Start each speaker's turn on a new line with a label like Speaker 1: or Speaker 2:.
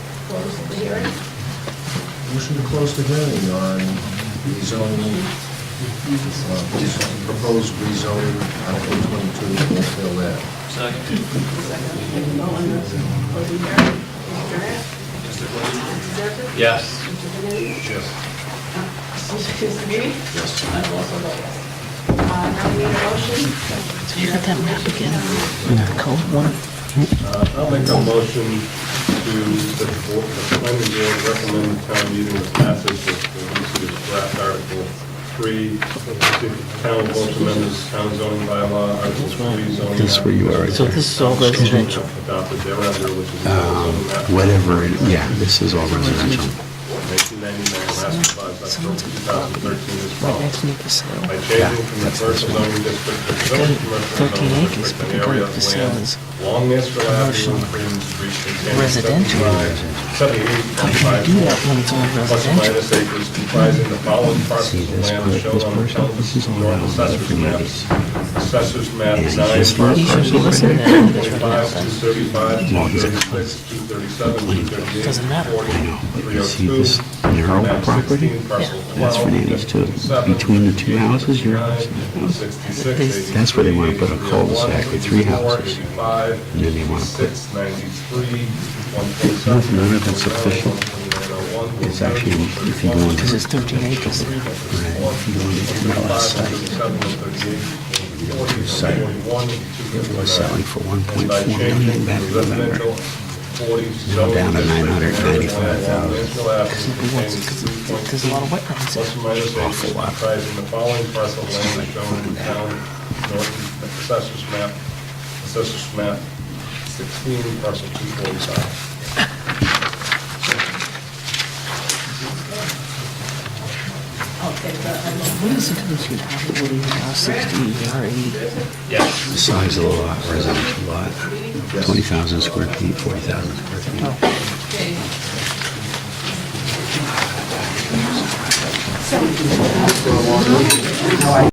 Speaker 1: hearing.
Speaker 2: Motion to close the hearing on rezoning, uh, re- proposed rezoning, Article 22, Oakdale Ave.
Speaker 3: Second.
Speaker 1: Second, all in those closing hearing. Mr. Durant?
Speaker 3: Mr. Blake?
Speaker 1: Mrs. Zerfin?
Speaker 3: Yes.
Speaker 1: Mr. Delaney?
Speaker 2: Yes.
Speaker 1: Mr. Meany?
Speaker 2: Yes.
Speaker 1: I'm also a yes. Uh, Now we need a motion.
Speaker 4: You got that map again? The cold one?
Speaker 5: I'll make a motion to, that the board, the planning board recommend town meeting the passage of the recent draft article three, to town vote to amend this town zoning bylaw, article three zoning.
Speaker 6: That's where you are, right Um,
Speaker 4: So this is all residential.
Speaker 5: Adopted thereafter, which is. Uh,
Speaker 6: Whatever, it- yeah, this is all residential.
Speaker 5: 1999, last revised October 2013 as
Speaker 4: My
Speaker 5: well.
Speaker 4: next neighbor's sale.
Speaker 5: By changing from the first zoning district to the zoning commercial
Speaker 4: Thirteen acres,
Speaker 5: zoning district,
Speaker 4: but
Speaker 5: an
Speaker 4: they're
Speaker 5: area
Speaker 4: going
Speaker 5: of
Speaker 4: for
Speaker 5: land
Speaker 4: sales.
Speaker 5: along Mansfield Avenue and
Speaker 4: Commercial.
Speaker 5: Freedom Street containing
Speaker 4: Residential.
Speaker 5: 75 78,
Speaker 4: How do you do that when it's all
Speaker 5: plus or
Speaker 4: residential?
Speaker 5: minus acres comprising the following
Speaker 6: See
Speaker 5: parcels of
Speaker 6: this
Speaker 5: land
Speaker 6: part,
Speaker 5: shown
Speaker 6: this
Speaker 5: on the
Speaker 6: parcel, this is all
Speaker 5: Pelton North
Speaker 6: around
Speaker 5: Assessor's
Speaker 6: the
Speaker 5: Map.
Speaker 6: communities.
Speaker 5: Assessor's Map
Speaker 6: Is
Speaker 5: 9,
Speaker 6: this
Speaker 5: Parcel
Speaker 6: You should be
Speaker 4: listening to that, that's right now,
Speaker 5: 25, 235,
Speaker 6: Long as it
Speaker 5: 236, 237, 238,
Speaker 4: Doesn't matter.
Speaker 5: 40,
Speaker 6: I know, but you see
Speaker 5: 302,
Speaker 6: this narrow
Speaker 5: map 16,
Speaker 6: property?
Speaker 5: parcel
Speaker 6: That's
Speaker 5: 12,
Speaker 6: for Nanny's too.
Speaker 5: 57,
Speaker 6: Between the two houses, your house and
Speaker 5: 89, 66,
Speaker 4: This-
Speaker 6: That's where they wanna put a
Speaker 5: 83,
Speaker 6: cul-de-sac with three
Speaker 5: 84,
Speaker 6: houses.
Speaker 5: 85,
Speaker 6: And then they wanna put-
Speaker 5: 86, 93, 127,
Speaker 6: None of it's official.
Speaker 5: 129,
Speaker 6: It's actually, if you go into.
Speaker 4: Because it's 13 acres.
Speaker 6: It was selling for 1.4 million back in November.
Speaker 5: Down
Speaker 6: down
Speaker 5: to
Speaker 6: to
Speaker 5: 995,000.
Speaker 6: 995,000.
Speaker 4: Because there's a lot of wetlands
Speaker 5: Plus or
Speaker 4: there.
Speaker 5: minus
Speaker 6: Awful
Speaker 5: acres
Speaker 6: lot.
Speaker 5: comprising the following parcel of land as shown in town, Norton, assessors map, assessors map 16, parcel 245.
Speaker 1: Okay, but I'm
Speaker 4: What is the difference between Hollywood and now 60 or 80?
Speaker 3: Yes.
Speaker 6: Size of the lot, residential lot, 20,000 square feet, 40,000 square feet.
Speaker 1: okay.